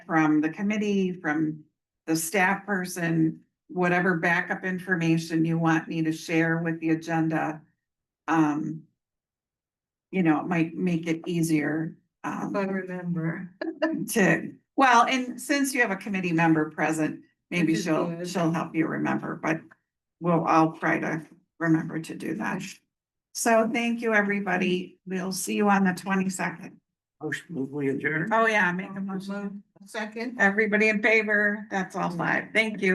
from the committee, from the staff person, whatever backup information you want me to share with the agenda. Um. You know, it might make it easier, um, If I remember. to, well, and since you have a committee member present, maybe Which is she'll, good. she'll help you remember, but we'll all try to remember to do that. So thank you, everybody. We'll see you on the twenty-second. Motion, we adjourn. Oh, yeah, make a motion. Second. Everybody in favor? That's all five. Thank you.